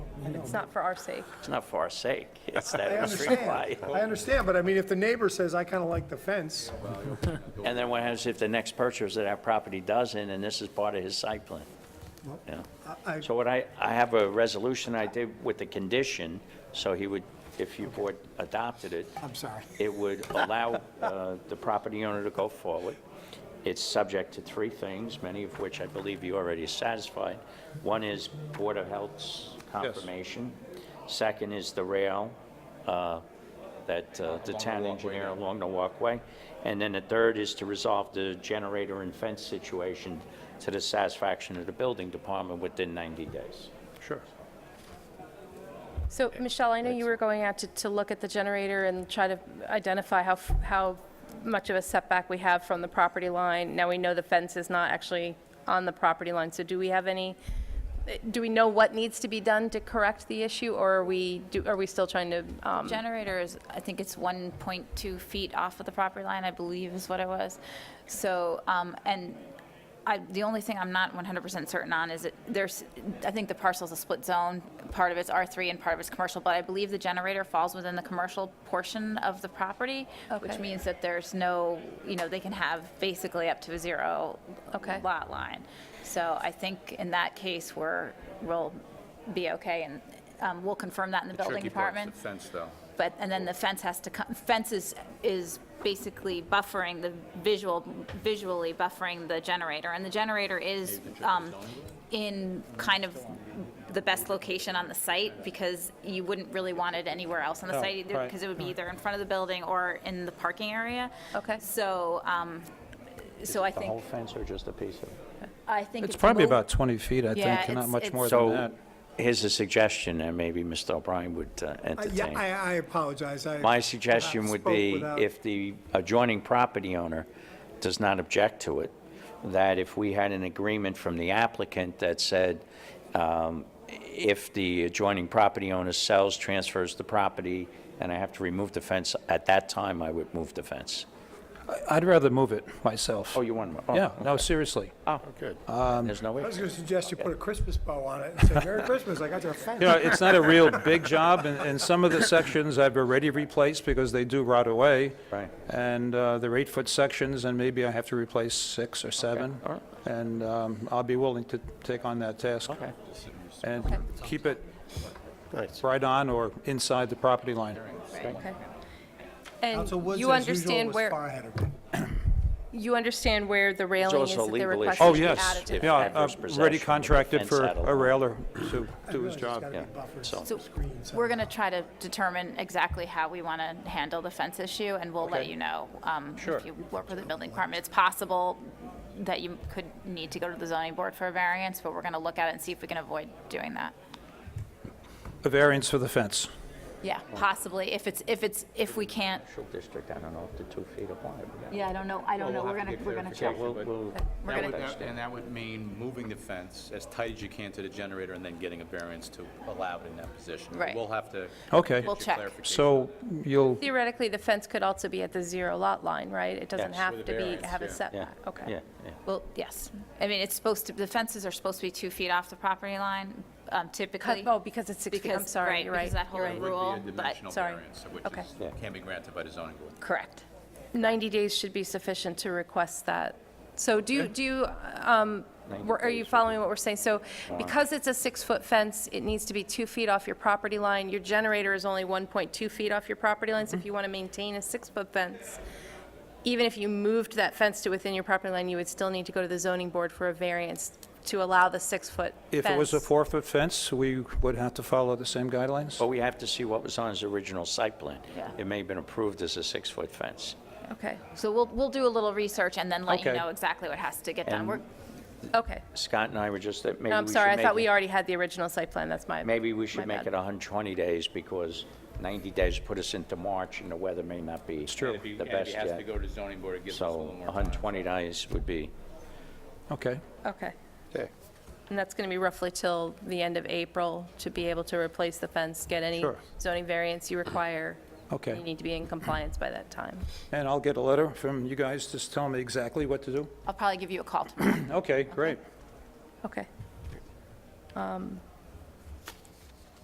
It's not for our sake. It's not for our sake, it's that I it was understand, required. I understand, but I mean, if the neighbor says, I kind of like the fence, And then what happens if the next purchaser of that property doesn't, and this is part of his site plan? Yeah. I, So what I, I have a resolution I did with the condition, so he would, if you board adopted it, I'm sorry. it would allow uh, the property owner to go forward. It's subject to three things, many of which I believe you already satisfied. One is Board of Health's confirmation. Second is the rail uh, that uh, the town engineer along the walkway. And then the third is to resolve the generator and fence situation to the satisfaction of the building department within 90 days. Sure. So, Michelle, I know you were going out to, to look at the generator and try to identify how, f- how much of a setback we have from the property line. Now we know the fence is not actually on the property line, so do we have any, do we know what needs to be done to correct the issue, or are we, do- are we still trying to, um, Generator is, I think it's 1.2 feet off of the property line, I believe is what it was. So, um, and I, the only thing I'm not 100% certain on is that there's, I think the parcel's a split zone. Part of it's R3 and part of it's commercial, but I believe the generator falls within the commercial portion of the property, which Okay. means that there's no, you know, they can have basically up to a zero Okay. lot line. So I think in that case, we're, we'll be okay, and um, we'll confirm that in the building Tricky part's department. the fence, though. But, and then the fence has to come, fence is, is basically buffering the visual, visually buffering the generator. And the generator is um, in kind of the best location on the site because you wouldn't really want it anywhere else on the No, site either Oh, right, because it would be either in front of the building or in the parking area. Okay. So, um, so I The whole think, fence or just a piece of it? I think. It's probably moved- about 20 feet, I Yeah, think, and not it's- much it's- more than So that. here's a suggestion, and maybe Mr. O'Brien would uh, I- Yeah, entertain. I, I apologize, I. My suggestion would be, spoke without- if the adjoining property owner does not object to it, that if we had an agreement from the applicant that said, um, if the adjoining property owner sells, transfers the property, and I have to remove the fence, at that time, I would move the fence. I'd rather move it myself. Oh, you want to? Yeah, no, seriously. Oh, good. There's no way. I was going to suggest you put a Christmas bow on it and say, Merry Christmas, I got your fence. You know, it's not a real big job, and, and some of the sections I've already replaced because they do rot away. Right. And uh, they're eight-foot sections, and maybe I have to replace six or seven. all right. And um, I'll be willing to take on that task. Okay. And keep it right on or inside the property line. okay? Council And Woods, you as usual, understand was where, far ahead of me. you understand where the railing is also that they're legally requesting? Oh, Just yes. added to Yeah, the adverse I've already possession, contracted fence for saddle. a railer to do his Really, there's job. gotta be Yeah, buffers, so- So screens, We're going to try to determine exactly how we want to handle the fence issue, and we'll let you know. um, Sure. If you work with the building department, it's possible that you could need to go to the zoning board for a variance, but we're going to look at it and see if we can avoid doing that. A variance for the fence. Yeah, possibly, if it's, if it's, if we can't, District, I don't know if the two feet apply. but- yeah, I don't know, I don't know, Well, we'll we're have going to to, get we're going to Yeah, check. clarification. we'll, we'll. We're That gonna- would- that- And that would mean moving the fence as tight as you can to the generator and then getting a variance to allow it in that position. Right. We'll have to. Okay. get We'll you check. clarification. So you'll, Theoretically, the fence could also be at the zero lot line, right? It doesn't Yes. have With to a be, variance, have a yeah. Yeah, setback, okay? yeah, yeah. Well, yes, I mean, it's supposed to, the fences are supposed to be two feet off the property line um, typically. Oh, because it's six feet, I'm Because- sorry, you're Because that right. whole It would rule, be a but, dimensional sorry. variance, which Okay. is, Yeah. can be granted by the zoning board. correct. 90 days should be sufficient to request that. So do you, do you, um, were- are you following what we're saying? So because it's a six-foot fence, it needs to be two feet off your property line. Your generator is only 1.2 feet off your property line, so if you want to maintain a six-foot fence, even if you moved that fence to within your property line, you would still need to go to the zoning board for a variance to allow the six-foot fence. if it was a four-foot fence, we would have to follow the same guidelines? But we have to see what was on his original site plan. Yeah. It may have been approved as a six-foot fence. Okay, So we'll, we'll do a little research and then let you Okay. know exactly what has to get done. And- We're, okay. Scott and I were just, that maybe No, we I'm should sorry, I make thought it- we already had the original site plan, that's my. Maybe we my should make bad. it 120 days, because 90 days put us into March, and the weather may not be true. And if he- the and if best he has to yet. go to zoning board, it gives us a So little more time. 120 days would be, Okay. Okay. Okay. And that's going to be roughly till the end of April to be able to replace the fence, get any Sure. zoning variance you require. Okay. You need to be in compliance by that time. And I'll get a letter from you guys just telling me exactly what to do? I'll probably give you a call tomorrow. Okay, great. Okay. Um,